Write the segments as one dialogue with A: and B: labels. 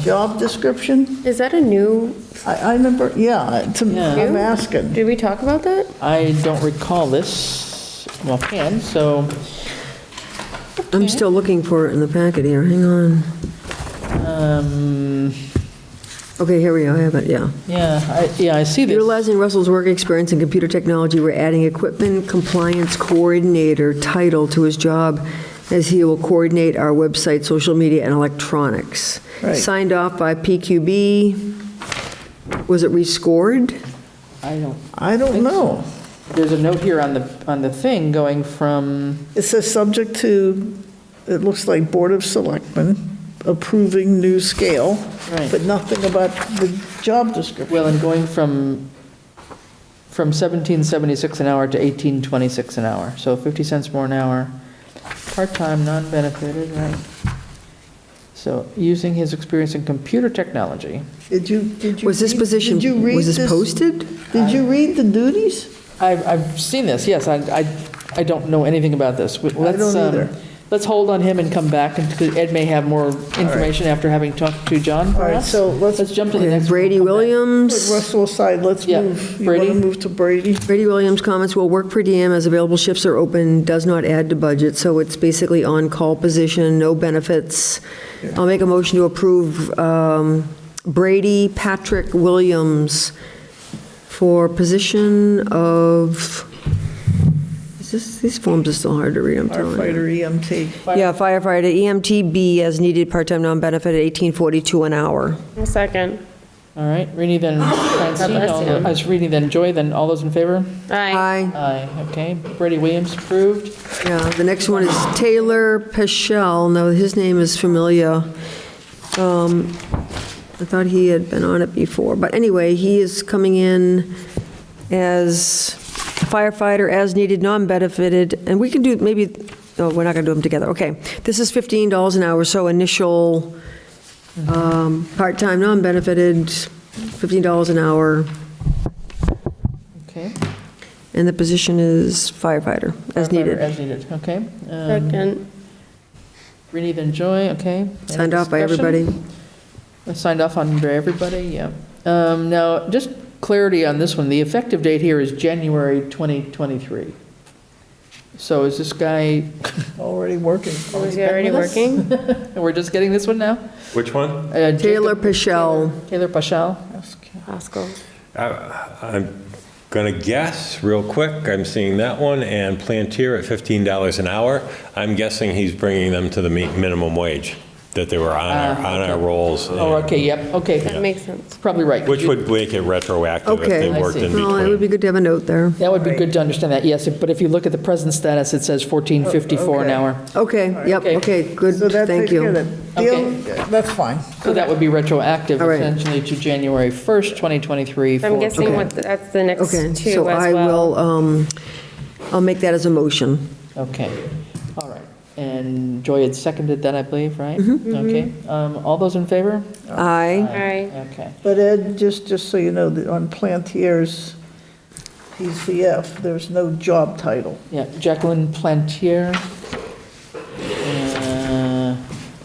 A: job description?
B: Is that a new,
A: I, I remember, yeah, it's- I'm
B: Yeah.
A: asking.
B: did we talk about that?
C: I don't recall this offhand, so
D: I'm still looking for it in the packet here, hang on.
C: um,
D: Okay, here we go, I have it, yeah.
C: yeah, I, yeah, I see this.
D: Utilizing Russell's work experience in computer technology, we're adding equipment compliance coordinator title to his job, as he will coordinate our website, social media, and electronics.
A: Right.
D: Signed off by PQB. Was it rescored?
C: I don't.
A: I don't know.
C: There's a note here on the on the thing going from
A: It says subject to, it looks like Board of Selectmen approving new scale,
C: Right.
A: but nothing about the job description.
C: well and going from from 1776 an hour to 1826 an hour. So 50 cents more an hour, part time, non benefited, right? So using his experience in computer technology.
A: Did you, did you?
D: Was this
A: read-
D: position,
A: Did you read
D: was this posted?
A: Did you
C: Uh,
A: read the duties?
C: I've, I've seen this, yes, I, I, I don't know anything about this. We- let's,
A: don't
C: um,
A: either.
C: Let's hold on him and come back, and, because Ed may have more information after having talked to John for
A: All right,
C: us.
A: so let's-
C: Let's jump to the
D: Okay,
C: next. one.
D: Brady
A: Put
D: Williams.
A: Russell aside, let's
C: Yeah,
A: move. You want to
C: Brady?
A: move to Brady?
D: Brady Williams comments, "Well, work per diem as available shifts are open, does not add to budget, so it's basically on-call position, no benefits." I'll make a motion to approve um, Brady Patrick Williams for position of, is this- these forms are still hard to read, I'm telling you.
A: Firefighter E EMT.
D: Yeah, firefighter, E EMTB as needed, part-time, non-benefit, at 1842 an hour.
B: A second.
C: All right, Reenie then Francine,
B: bless
C: all
B: you.
C: tho- as Reenie then Joy, then all those in favor?
B: Aye.
D: Aye.
C: Aye, okay, Brady Williams approved.
D: Yeah, the next one is Taylor Peschel. Now, his name is familiar. Um, I thought he had been on it before, but anyway, he is coming in as firefighter, as needed, non-benefited, and we can do, maybe, no, we're not going to do them together, okay. This is $15 an hour, so initial, um, part-time, non-benefited, $15 an hour,
C: Okay.
D: and the position is firefighter, as
C: Firefighter
D: needed.
C: As needed, okay. Um,
B: Second.
C: Reenie then Joy, okay. Any
D: Signed off by
C: discussion?
D: everybody.
C: Signed off on by everybody, yeah. Um, Now, just clarity on this one, the effective date here is January 2023. So is this guy,
A: Already working.
D: Um,
B: Was Oh, he already
C: with us?
B: working?
C: we're just getting this one now?
E: Which one?
C: Uh, Jacob-
D: Taylor Peschel.
C: Taylor Paschal,
B: Oscar.
E: I- I'm going to guess real quick, I'm seeing that one, and Plantier at $15 an hour. I'm guessing he's bringing them to the mi- minimum wage that they were on our,
C: Ah,
E: on our
C: okay.
E: rolls.
C: oh, okay, yep,
B: That
C: okay,
B: makes sense.
C: probably right.
E: Which would make it retroactive if
D: Okay.
E: they
C: I
E: worked
C: see.
E: in
D: Well, it would
E: between.
D: be good to have a note there.
C: That would be good to understand that, yes, but if you look at the present status, it says
B: Oh,
C: 1454 an
A: okay.
C: hour.
D: Okay, yep,
C: Okay.
D: okay, good,
A: So that
D: thank
A: takes care of
D: you.
A: that. The
C: Okay.
A: other- That's fine.
C: So that would be retroactive
D: All right.
C: essentially to January 1st, 2023.
B: I'm
C: for-
B: guessing what, that's the next two
D: Okay,
B: as
D: so I
B: well.
D: will, um, I'll make that as a motion.
C: Okay, all right. And Joy had seconded that, I believe, right?
D: Mm-hmm.
C: Okay, um, all those in favor?
D: Aye,
B: Mm-hmm. Aye.
C: Okay,
A: But Ed, just, just so you know, that on Plantier's PCF, there's no job title.
C: yeah, Jacqueline Plantier. Uh,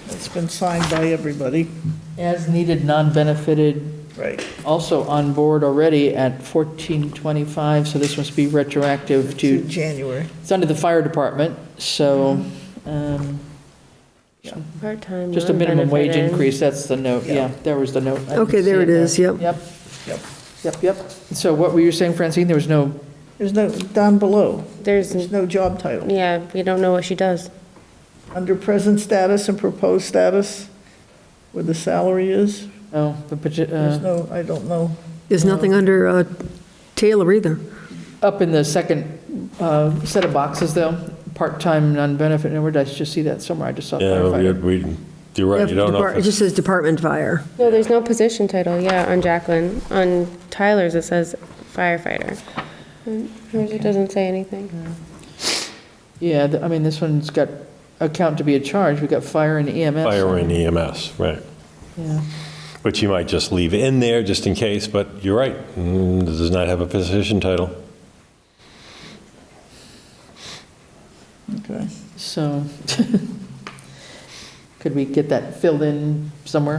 A: It's been signed by everybody.
C: As needed, non-benefited,
A: Right.
C: also on board already at 1425, so this must be retroactive
A: To
C: to,
A: January.
C: it's under the fire department, so,
B: Mm-hmm.
C: um,
B: Part-time.
C: Just a minimum wage
B: non-benefited.
C: increase, that's the note,
A: Yeah.
C: yeah, there was the note. I didn't
D: Okay, there
C: see
D: it is,
C: there.
D: yep.
C: Yep,
A: Yep.
C: yep, yep. So what were you saying, Francine, there was no,
A: There's no, down below,
B: There's,
A: there's no job title.
B: yeah, we don't know what she does.
A: Under present status and proposed status, where the salary is,
C: oh, the, pati-
A: there's
C: uh,
A: no, I don't know.
D: there's nothing under uh, Taylor either.
C: up in the second uh, set of boxes, though, part-time, non-benefit, and where did I just see that somewhere, I just saw
E: Yeah, we-
C: firefighter.
E: we, you're right, you don't know
D: Depart-
E: if
D: It
E: it's
D: just says department fire.
B: No, there's no position title, yeah, on Jacqueline. On Tyler's, it says firefighter. And Hers, it doesn't say anything.
C: Yeah, th- I mean, this one's got account to be a charge, we've got fire and EMS.
E: fire and EMS, right?
C: Yeah.
E: Which you might just leave in there just in case, but you're right, mm, this does not have a position title.
A: Okay.
C: So, could we get that filled in somewhere?